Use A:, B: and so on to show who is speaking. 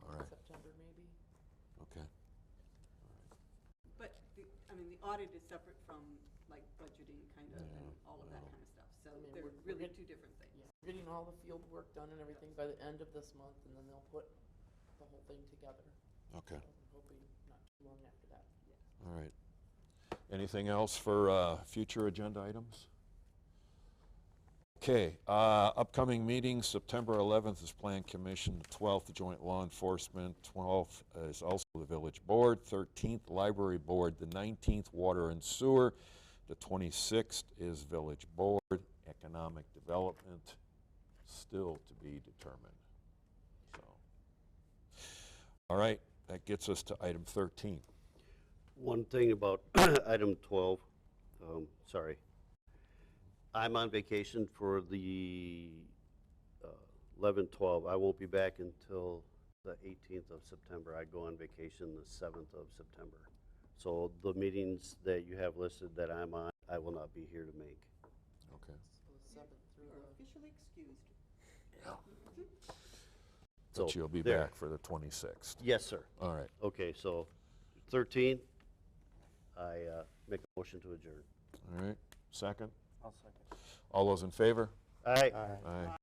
A: audit is separate from like budgeting kind of and
B: Yeah,
A: all of that
B: well.
A: kind of stuff. So
C: I mean,
A: they're
C: we're- we're
A: really
C: get-
A: two different things.
C: Yeah, we're getting all the field work done and everything by the end of this month, and then they'll put the whole thing together.
B: Okay,
C: So I'm hoping not too long after that.
B: all right. Anything else for uh, future agenda items? Okay, uh, upcoming meetings, September 11th is Plan Commission, the 12th Joint Law Enforcement, 12th is also the Village Board, 13th Library Board, the 19th Water and Sewer, the 26th is Village Board, Economic Development, still to be determined, so. All right, that gets us to item 13.
D: One thing about item 12, um, sorry. I'm on vacation for the uh, 11, 12. I won't be back until the 18th of September. I go on vacation the 7th of September. So the meetings that you have listed that I'm on, I will not be here to make.
B: Okay.
C: So the seventh through
A: You're
C: the,
A: officially excused.
D: So
B: But you'll be
D: there.
B: back for the 26th.
D: Yes, sir.
B: All right.
D: Okay, so 13, I uh, make a motion to adjourn.
B: All right. Second.
D: I'll second.
B: All those in favor?
D: Aye.
B: Aye.